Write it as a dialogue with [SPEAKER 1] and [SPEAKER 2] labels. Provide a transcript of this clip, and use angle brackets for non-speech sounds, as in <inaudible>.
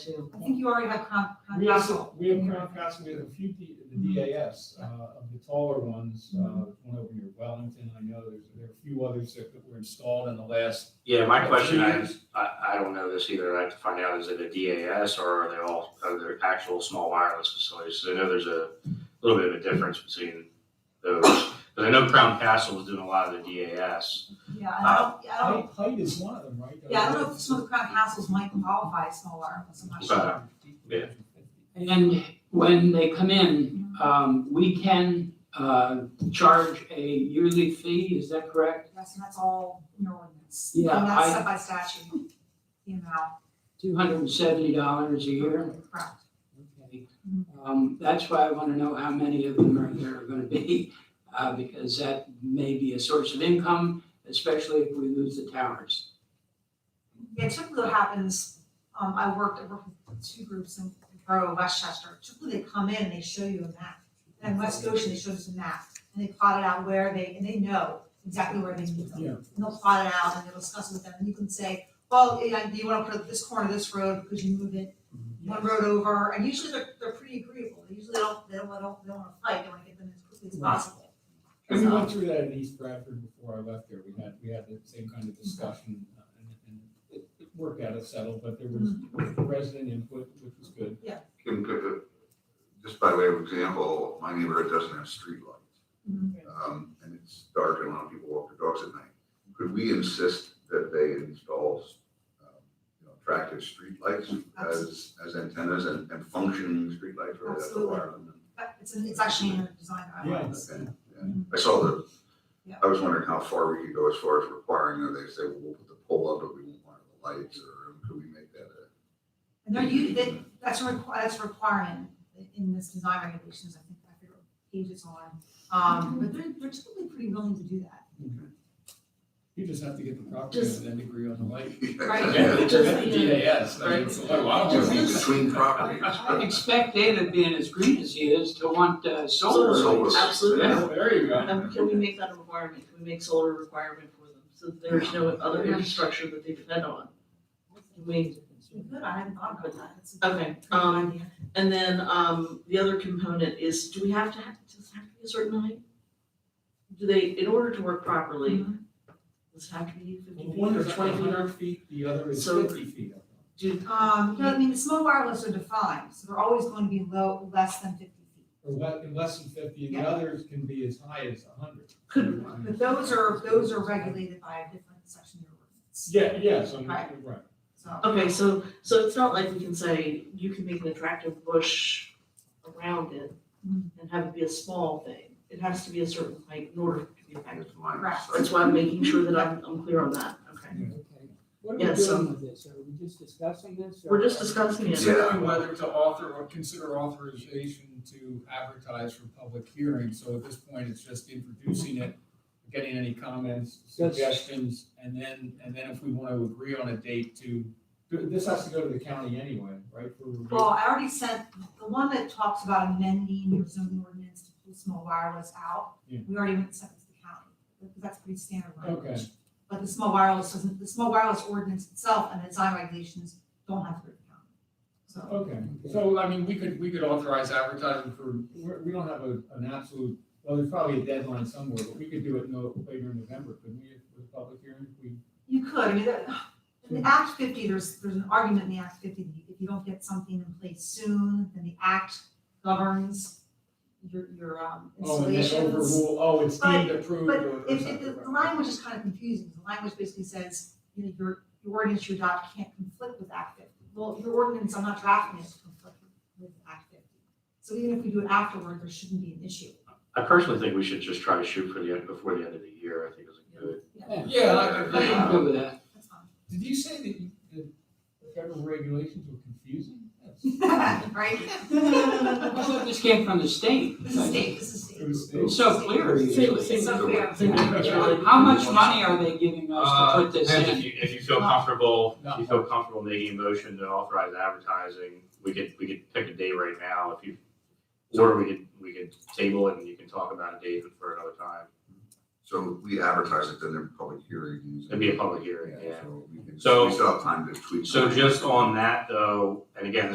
[SPEAKER 1] I think you already have con,
[SPEAKER 2] We
[SPEAKER 1] con,
[SPEAKER 2] also, we have Crown Castle, we have a few, D- the
[SPEAKER 1] Mm-hmm.
[SPEAKER 2] DAS, uh, of the taller ones, uh, one over near Wellington, I know, there's, there are a few others that were installed in the last.
[SPEAKER 3] Yeah, my
[SPEAKER 2] Yeah,
[SPEAKER 3] question
[SPEAKER 2] three
[SPEAKER 3] is, I, I don't know this either. I have to find out, is it a DAS or are they all, are there actual small wireless facilities? 'Cause I know there's a little bit of a difference between those. But I know Crown Castle was doing a lot of the DAS.
[SPEAKER 1] yeah, I
[SPEAKER 4] Uh-huh.
[SPEAKER 1] don't, I don't,
[SPEAKER 2] Height, height is one of them, right?
[SPEAKER 1] Oh. yeah, I don't know if some of the crown castles might qualify as small wireless, I'm not sure.
[SPEAKER 3] But, yeah.
[SPEAKER 4] And when they come in, um, we can, uh, charge a yearly fee, is that correct?
[SPEAKER 1] Yes, and that's all in your ordinance.
[SPEAKER 4] Yeah,
[SPEAKER 1] And that's
[SPEAKER 4] I-
[SPEAKER 1] set by statute, you know,
[SPEAKER 4] Two hundred and seventy dollars a year?
[SPEAKER 1] correct.
[SPEAKER 4] Okay. Um, that's why I wanna know how many of them are, there are gonna be, uh, because that may be a source of income, especially if we lose the towers.
[SPEAKER 1] Yeah, typically what happens, um, I worked, I worked with two groups in the borough of Westchester, typically they come in and they show you a map. And in West Goshen, they showed us a map, and they plotted out where they, and they know exactly where they need them.
[SPEAKER 2] Yeah.
[SPEAKER 1] and they'll plot it out and they'll discuss it with them, and you can say, well, yeah, you wanna put it this corner of this road, because you move it one road over, and usually they're, they're pretty agreeable, they usually don't, they don't, they don't, they don't wanna fight, they wanna get them as quickly as
[SPEAKER 2] Right.
[SPEAKER 1] possible.
[SPEAKER 2] And we went through that in East Bradford before I left there, we had, we had the same kind of discussion, uh, and, and it it worked out, it settled, but there was
[SPEAKER 1] Mm-hmm.
[SPEAKER 2] resident input, which was good.
[SPEAKER 5] can pick up, just by way of example, my neighborhood doesn't have
[SPEAKER 1] Mhm.
[SPEAKER 5] streetlights. Um, and it's dark and a lot of people walk their dogs at night. Could we insist that they install, um, you know, attractive streetlights as, as antennas and, and functioning streetlights, whether that's a
[SPEAKER 1] Absolutely.
[SPEAKER 5] wire them?
[SPEAKER 1] But it's, in- it's actually in the design guidelines.
[SPEAKER 5] Okay, yeah.
[SPEAKER 1] Mm-hmm.
[SPEAKER 5] I saw the, I was wondering how far we could go as far as requiring, that they say, well, we'll put the pole up, but we won't want the lights, or could we make that a?
[SPEAKER 1] And they're you, that, that's a requi- that's a requirement in this design regulations, I think, I forget what page it's on, um, but they're, they're typically pretty willing to do that.
[SPEAKER 2] You just have to get the property and then agree on the light.
[SPEAKER 5] <laughs>
[SPEAKER 1] Right.
[SPEAKER 2] Yeah,
[SPEAKER 5] Yeah.
[SPEAKER 2] it's just the DAS, I mean, it's a little while.
[SPEAKER 5] Just in between properties.
[SPEAKER 4] I expect David being as green as he is to want, uh, solar
[SPEAKER 5] Solar.
[SPEAKER 4] lights.
[SPEAKER 6] Absolutely.
[SPEAKER 2] There you go.
[SPEAKER 6] Um, can we make that a requirement? Can we make solar a requirement for them? So that there's no other infrastructure that they depend on. Can we-
[SPEAKER 1] Good, I hadn't thought about that, it's a good
[SPEAKER 6] Okay, um,
[SPEAKER 1] idea.
[SPEAKER 6] and then, um, the other component is, do we have to have, does it have to be a certain height? Do they, in order to work properly, does it have to be fifty feet
[SPEAKER 2] One
[SPEAKER 6] or
[SPEAKER 2] is
[SPEAKER 6] twenty feet?
[SPEAKER 2] hundred feet, the other is
[SPEAKER 6] So-
[SPEAKER 2] fifty feet.
[SPEAKER 6] Do,
[SPEAKER 1] Um, you know, I mean, the small wireless are defined, so they're always going to be low, less than fifty feet.
[SPEAKER 2] Or le- and less than fifty, the
[SPEAKER 1] Yeah.
[SPEAKER 2] others can be as high as hundred.
[SPEAKER 6] could,
[SPEAKER 1] But those are, those are regulated by a different section of your ordinance,
[SPEAKER 2] Yeah, yes, I'm, right.
[SPEAKER 1] Right. so.
[SPEAKER 6] okay, so, so it's not like we can say, you can make an attractive bush around it
[SPEAKER 1] Mm.
[SPEAKER 6] and have it be a small thing. It has to be a certain height in order to be effective.
[SPEAKER 1] Right.
[SPEAKER 6] That's why I'm making sure that I'm, I'm clear on that, okay?
[SPEAKER 4] Okay. What are
[SPEAKER 6] Yeah,
[SPEAKER 4] we
[SPEAKER 6] so-
[SPEAKER 4] doing with this? Are we just discussing this? or-
[SPEAKER 6] um, We're just discussing it.
[SPEAKER 2] Considering whether to author or consider authorization to advertise for public hearing, so at this point, it's just introducing it, getting any comments,
[SPEAKER 4] That's-
[SPEAKER 2] suggestions, and then, and then if we want to agree on a date to, this has to go to the county anyway, right? for review?
[SPEAKER 1] Well, I already sent, the one that talks about amending your zoning ordinance to pull small wireless out,
[SPEAKER 2] Yeah.
[SPEAKER 1] we already went sent it to the county, because that's pretty standard
[SPEAKER 2] Okay.
[SPEAKER 1] language. But the small wireless doesn't, the small wireless ordinance itself and the design regulations don't have to go to the county, so.
[SPEAKER 2] Okay, so I mean, we could, we could authorize advertising for, we're- we don't have a, an absolute, well, there's probably a deadline somewhere, but we could do it no later in November, couldn't we, with a public hearing? if We,
[SPEAKER 1] You could, I mean, that- in the Act fifty, there's, there's an argument in the Act fifty, that if you don't get something in place soon, then the act governs your, your um,
[SPEAKER 2] oh, and then
[SPEAKER 1] installations.
[SPEAKER 2] overrule, oh, it's deemed approved
[SPEAKER 1] But
[SPEAKER 2] or or
[SPEAKER 1] if, if,
[SPEAKER 2] something,
[SPEAKER 1] the-
[SPEAKER 2] right.
[SPEAKER 1] the language is kind of confusing, the language basically says, you know, your, your ordinance you adopt can't conflict with Act fifty. Well, your ordinance, I'm not drafting it to conflict with Act fifty. So even if we do it afterward, there shouldn't be an issue.
[SPEAKER 3] I personally think we should just try to shoot for the, end before the end of the year. I think it's a good.
[SPEAKER 2] Yeah, I-
[SPEAKER 4] I
[SPEAKER 2] I-
[SPEAKER 4] can go with that.
[SPEAKER 1] That's
[SPEAKER 2] did you say that you, that the federal regulations were confusing? Yes.
[SPEAKER 1] fine, <laughs> right?
[SPEAKER 4] I thought this came from the state.
[SPEAKER 1] This is state, this is state.
[SPEAKER 2] It was-
[SPEAKER 4] It's so clear usually.
[SPEAKER 6] Same-
[SPEAKER 1] So clear.
[SPEAKER 6] same-
[SPEAKER 4] How much money are they giving us to put this
[SPEAKER 3] Uh, Depends
[SPEAKER 4] in?
[SPEAKER 3] if you, if you feel comfortable,
[SPEAKER 2] No.
[SPEAKER 3] if you feel comfortable making a motion to authorize advertising, we could, we could pick a day right now if you, or we could, we could table it and you can talk about a date for another time.
[SPEAKER 5] So we advertise it, then there are public hearings.
[SPEAKER 3] It'd be a public hearing, yeah.
[SPEAKER 5] So we can,
[SPEAKER 3] So-
[SPEAKER 5] we still have time to tweak.
[SPEAKER 3] So
[SPEAKER 5] that.
[SPEAKER 3] just on that though, and again,